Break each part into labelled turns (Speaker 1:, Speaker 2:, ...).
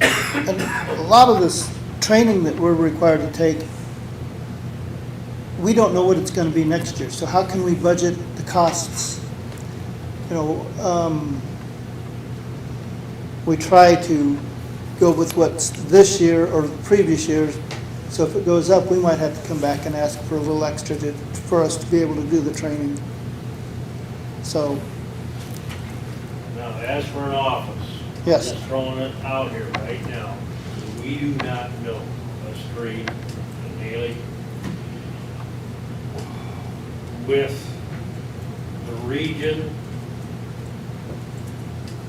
Speaker 1: And a lot of this training that we're required to take, we don't know what it's gonna be next year, so how can we budget the costs? You know, um, we try to go with what's this year or previous years. So if it goes up, we might have to come back and ask for a little extra to, for us to be able to do the training. So,
Speaker 2: Now, as for an office.
Speaker 1: Yes.
Speaker 2: Just throwing it out here right now, we do not know, us three, and Haley, with the region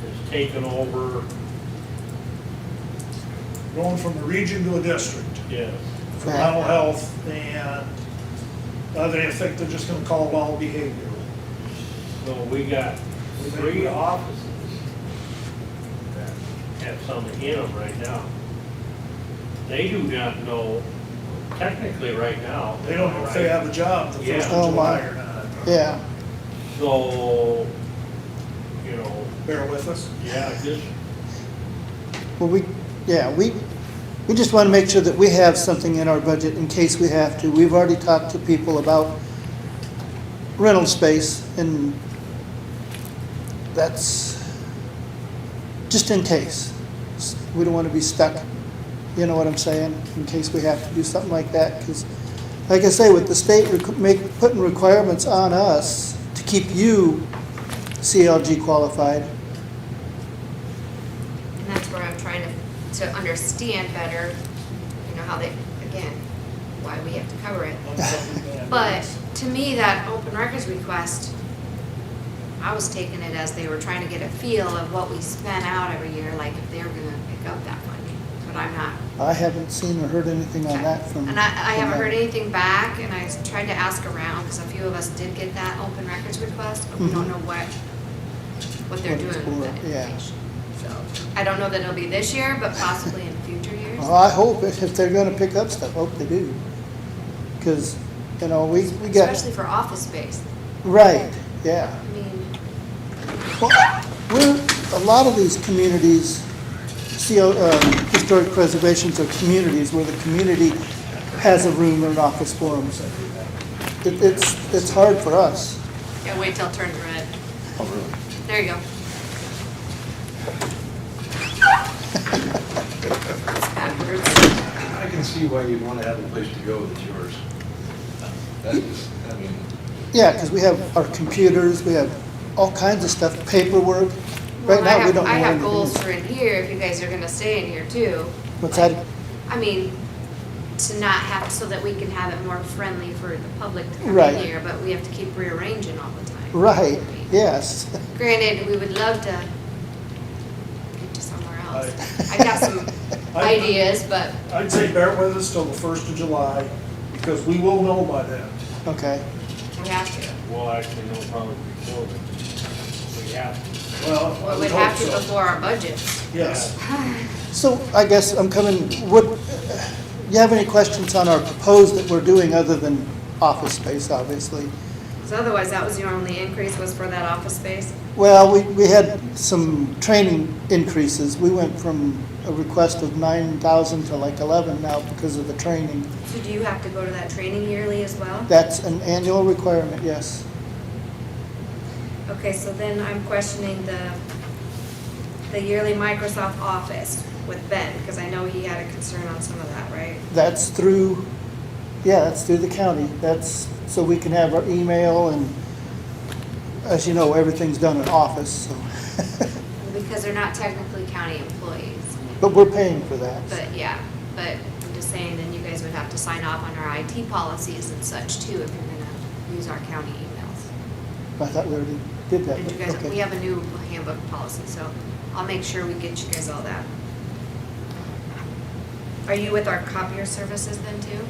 Speaker 2: has taken over,
Speaker 3: going from a region to a district
Speaker 2: yes,
Speaker 3: for
Speaker 1: Right.
Speaker 3: mental health and, uh, they think they're just gonna call it all behavioral.
Speaker 2: so we got three offices that have something in them right now. They do not know, technically right now.
Speaker 3: They don't know if they have a job the first
Speaker 2: Yeah.
Speaker 3: of
Speaker 1: Oh, my.
Speaker 3: July or not.
Speaker 1: yeah,
Speaker 2: So, you know,
Speaker 3: Bear with us.
Speaker 2: yeah, just,
Speaker 1: well, we, yeah, we, we just wanna make sure that we have something in our budget in case we have to. We've already talked to people about rental space and that's just in case. We don't wanna be stuck, you know what I'm saying, in case we have to do something like that, cause like I say, with the state requ- make, putting requirements on us to keep you CLG qualified,
Speaker 4: And that's where I'm trying to, to understand better, you know, how they, again, why we have to cover it. But to me, that open records request, I was taking it as they were trying to get a feel of what we spent out every year, like if they were gonna pick up that money, but I'm not.
Speaker 1: I haven't seen or heard anything on that from.
Speaker 4: And I, I
Speaker 1: from
Speaker 4: haven't heard
Speaker 1: them.
Speaker 4: anything back, and I tried to ask around, because a few of us did get that open records request, but we don't
Speaker 1: Mhm.
Speaker 4: know what, what they're
Speaker 1: What it's
Speaker 4: doing with
Speaker 1: for,
Speaker 4: that
Speaker 1: yeah.
Speaker 4: information. So, I don't know that it'll be this year, but possibly in future years.
Speaker 1: Well, I hope if, if they're gonna pick up stuff, hope they do. Cause, you know, we, we got,
Speaker 4: Especially for office space.
Speaker 1: right, yeah.
Speaker 4: I mean,
Speaker 1: Well, We're, a lot of these communities, CO, um, historic preservations are communities where the community has a room or an office for them. It, it's, it's hard for us.
Speaker 4: yeah, wait till it turns red. There you go. It's backwards.
Speaker 5: I can see why you'd want to have a place to go that's yours. That is, I mean,
Speaker 1: Yeah, cause we have our computers, we have all kinds of stuff, paperwork. Right
Speaker 4: Well, I
Speaker 1: now, we
Speaker 4: have-
Speaker 1: don't know
Speaker 4: I have
Speaker 1: anything.
Speaker 4: goals for in here, if you guys are gonna stay in here too.
Speaker 1: What's
Speaker 4: Like,
Speaker 1: that?
Speaker 4: I mean, to not have, so that we can have it more friendly for the public to come
Speaker 1: Right.
Speaker 4: in here, but we have to keep rearranging all the time.
Speaker 1: Right, yes.
Speaker 4: Granted, we would love to get to somewhere else. I got some
Speaker 3: I-
Speaker 4: ideas, but
Speaker 3: I'd say bear with us till the first of July, because we will know by then.
Speaker 1: Okay.
Speaker 4: we have to.
Speaker 2: well, actually, no, probably before, but we have to.
Speaker 3: Well, I
Speaker 4: Well,
Speaker 3: would
Speaker 4: we'd have to
Speaker 3: hope so.
Speaker 4: before our budget.
Speaker 3: Yes.
Speaker 1: So I guess I'm coming, would, you have any questions on our proposed that we're doing other than office space, obviously?
Speaker 4: Because otherwise, that was your only increase was for that office space.
Speaker 1: Well, we, we had some training increases. We went from a request of nine thousand to like eleven now because of the training.
Speaker 4: So do you have to go to that training yearly as well?
Speaker 1: That's an annual requirement, yes.
Speaker 4: Okay, so then I'm questioning the, the yearly Microsoft Office with Ben, because I know he had a concern on some of that, right?
Speaker 1: That's through, yeah, that's through the county. That's, so we can have our email and, as you know, everything's done in office, so.
Speaker 4: Because they're not technically county employees.
Speaker 1: But we're paying for that.
Speaker 4: But yeah, but I'm just saying, then you guys would have to sign off on our IT policies and such too, if you're gonna use our county emails.
Speaker 1: I thought we already did that.
Speaker 4: And you
Speaker 1: but
Speaker 4: guys,
Speaker 1: okay.
Speaker 4: we have a new handbook policy, so I'll make sure we get you guys all that. Are you with our copier services then too?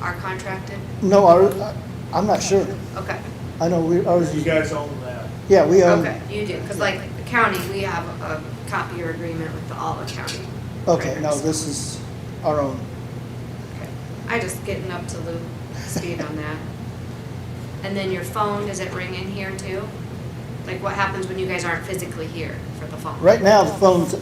Speaker 4: Our contracted?
Speaker 1: No, our, I'm not sure.
Speaker 4: Okay,
Speaker 1: I know we, ours
Speaker 3: You
Speaker 1: is,
Speaker 3: guys own that.
Speaker 1: yeah, we own,
Speaker 4: okay, you do, because like the county, we have a copier agreement with all of county.
Speaker 1: okay, no,
Speaker 4: printers.
Speaker 1: this is our own.
Speaker 4: Okay. I just getting up to loop speed on that. And then your phone, does it ring in here too? Like what happens when you guys aren't physically here for the phone?
Speaker 1: Right now, the phone's